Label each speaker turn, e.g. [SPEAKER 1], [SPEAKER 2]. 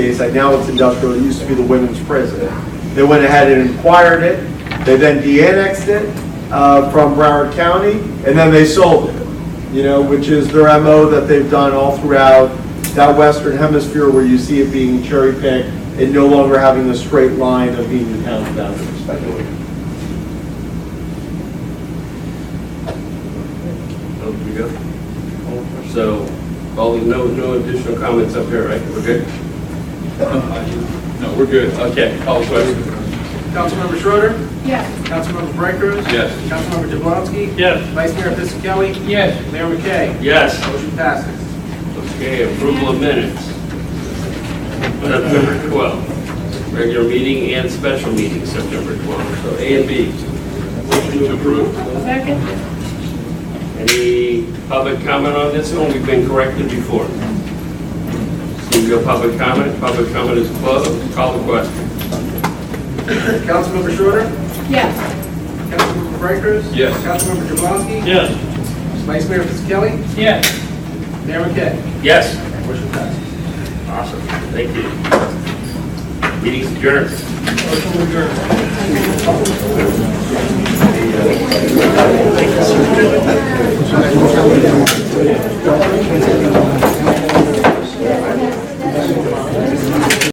[SPEAKER 1] say now it's industrial, it used to be the women's prison. They went ahead and acquired it, they then de-annexed it uh, from Broward County, and then they sold it, you know, which is their MO that they've done all throughout that western hemisphere where you see it being cherry-picked and no longer having the straight line of being the town boundaries.
[SPEAKER 2] Oh, we good? So, all, no, no additional comments up here, right? We're good?
[SPEAKER 3] No, we're good. Okay, call the question.
[SPEAKER 4] Councilmember Schroeder,
[SPEAKER 5] Yes.
[SPEAKER 4] Councilmember Brightcrus.
[SPEAKER 3] Yes.
[SPEAKER 4] Councilmember Jablonski.
[SPEAKER 3] Yes.
[SPEAKER 4] Vice Mayor Fisickelli.
[SPEAKER 3] Yes.
[SPEAKER 4] Mayor McKay.
[SPEAKER 3] Yes.
[SPEAKER 4] Motion passes.
[SPEAKER 2] Okay, approval of minutes. September 12, regular meeting and special meeting, September 12. So A and B. Motion to approve.
[SPEAKER 5] Second?
[SPEAKER 2] Any public comment on this one? We've been corrected before. Seeing no public comment, public comment is closed. Call the question.
[SPEAKER 4] Councilmember Schroeder,
[SPEAKER 5] Yes.
[SPEAKER 4] Councilmember Brightcrus.
[SPEAKER 3] Yes.
[SPEAKER 4] Councilmember Jablonski.
[SPEAKER 3] Yes.
[SPEAKER 4] Vice Mayor Fisickelli.
[SPEAKER 3] Yes.
[SPEAKER 4] Mayor McKay.
[SPEAKER 2] Yes.
[SPEAKER 4] Motion passes.
[SPEAKER 2] Awesome, thank you. Meeting's adjourned.